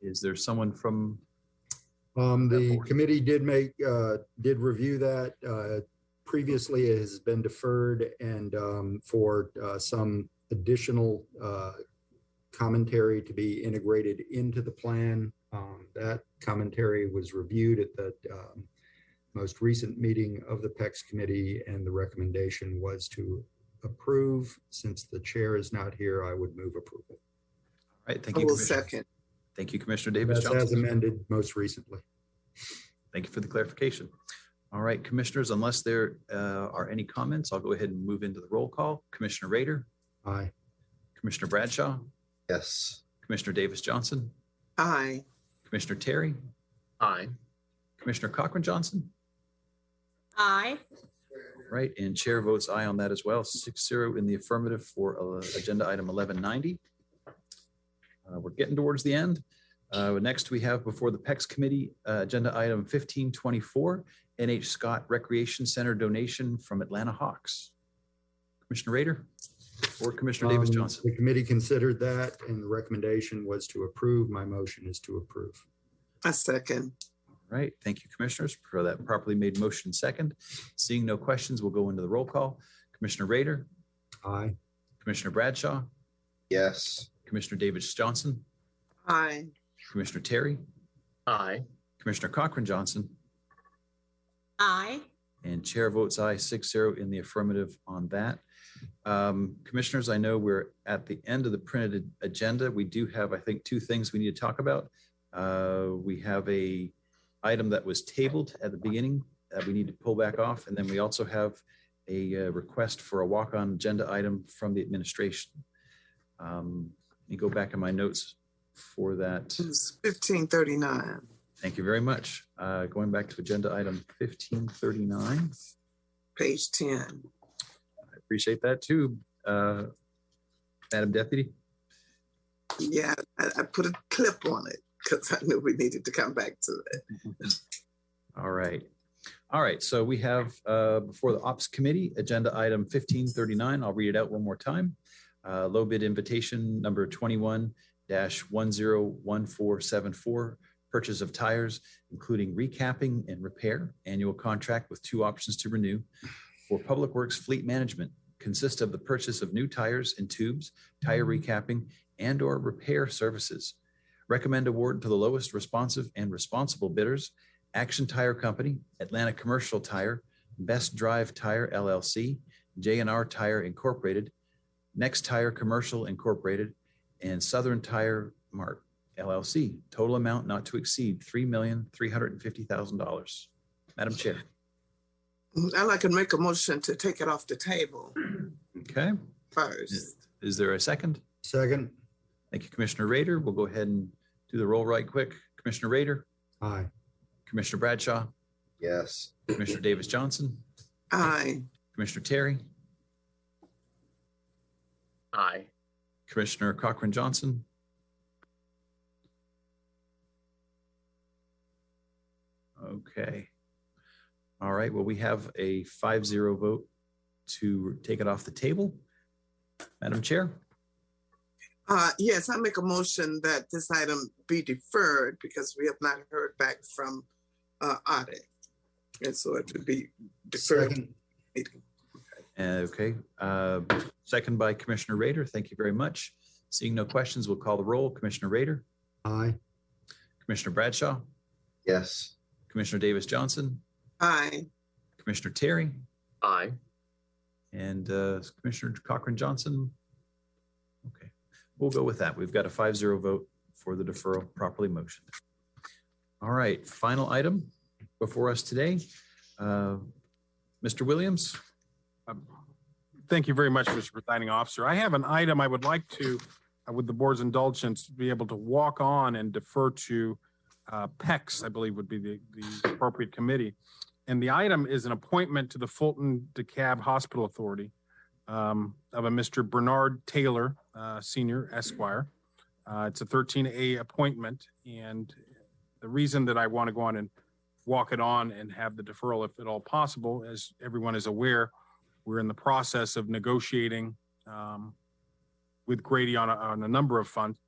Is there someone from, Um, the Therefore- committee did make, uh, did review that, uh, previously it has been deferred and, um, for, uh, some additional, uh, commentary to be integrated into the plan. Um, that commentary was reviewed at the, um, most recent meeting of the PEX committee and the recommendation was to approve. Since the chair is not here, I would move approval. all right, thank I you. will Commissioner. second. Thank you, Commissioner Davis That's as Johnson. amended most recently. Thank you for the clarification. All right, Commissioners, unless there uh, are any comments, I'll go ahead and move into the roll call. Commissioner Raider, Aye. Commissioner Bradshaw, Yes. Commissioner Davis Johnson, Aye. Commissioner Terry, Aye. Commissioner Cochran Johnson, Aye. right? And Chair votes aye on that as well, six zero in the affirmative for uh, Agenda Item eleven ninety. Uh, We're getting towards the end. Uh, Next, we have before the PEX Committee, uh, Agenda Item fifteen twenty-four, NH Scott Recreation Center donation from Atlanta Hawks. Commissioner Raider or Commissioner Davis Um, Johnson? The committee considered that and the recommendation was to approve. My motion is to approve. I second. Right. Thank you, Commissioners, for that properly made motion second. Seeing no questions, we'll go into the roll call. Commissioner Raider, Aye. Commissioner Bradshaw, Yes. Commissioner Davis Johnson, Aye. Commissioner Terry, Aye. Commissioner Cochran Johnson, Aye. and Chair votes aye, 6-0 in the affirmative on that. Um, Commissioners, I know we're at the end of the printed agenda. We do have, I think, two things we need to talk about. Uh, We have a item that was tabled at the beginning that we need to pull back off, and then we also have a uh, request for a walk-on agenda item from the administration. Um, Let me go back in my notes for that. It's fifteen thirty-nine. Thank you very much. Uh, Going back to agenda item fifteen thirty-nine. Page ten. Appreciate that too, uh, Madam Deputy. Yeah, I, I put a clip on it because I knew we needed to come back to it. All right. All right, so we have uh, before the Ops Committee, Agenda Item 1539. I'll read it out one more time. Uh, Low bid invitation number 21-101474, purchase of tires, including recapping and repair, annual contract with two options to renew for Public Works Fleet Management, consists of the purchase of new tires and tubes, tire recapping, and/or repair services. Recommend award to the lowest responsive and responsible bidders Action Tire Company, Atlanta Commercial Tire, Best Drive Tire LLC, J&R Tire Incorporated, Next Tire Commercial Incorporated, and Southern Tire Mart LLC. Total amount not to exceed $3,350,000. Madam Chair. I'd like to make a motion to take it off the table Okay, first. is there a second? Second. Thank you, Commissioner Raider. We'll go ahead and do the roll right quick. Commissioner Raider, Aye. Commissioner Bradshaw, Yes. Commissioner Davis Johnson, Aye. Commissioner Terry, Aye. Commissioner Cochran Johnson, Okay. All right, well, we have a five zero vote to take it off the table. Madam Chair, Uh, yes, I make a motion that this item be deferred because we have not heard back from, uh, audit. And so it would be deferred. Second. Uh, okay, uh, second by Commissioner Raider, thank you very much. Seeing no questions, we'll call the roll. Commissioner Raider, Aye. Commissioner Bradshaw, Yes. Commissioner Davis Johnson, Aye. Commissioner Terry, Aye. And uh, Commissioner Cochran Johnson? Okay, we'll go with that. We've got a five zero vote for the deferral properly motioned. All right, final item before us today. Uh, Mr. Williams? Um, Thank you very much, Mr. Presiding Officer. I have an item I would like to, uh, with the board's indulgence, be able to walk on and defer to uh, PEX, I believe would be the, the appropriate committee. And the item is an appointment to the Fulton DeKalb Hospital Authority um, of a Mr. Bernard Taylor, uh, Senior Esquire. Uh, It's a 13A appointment, and the reason that I want to go on and walk it on and have the deferral, if at all possible, as everyone is aware, we're in the process of negotiating um, with Grady on a, on a number of funds,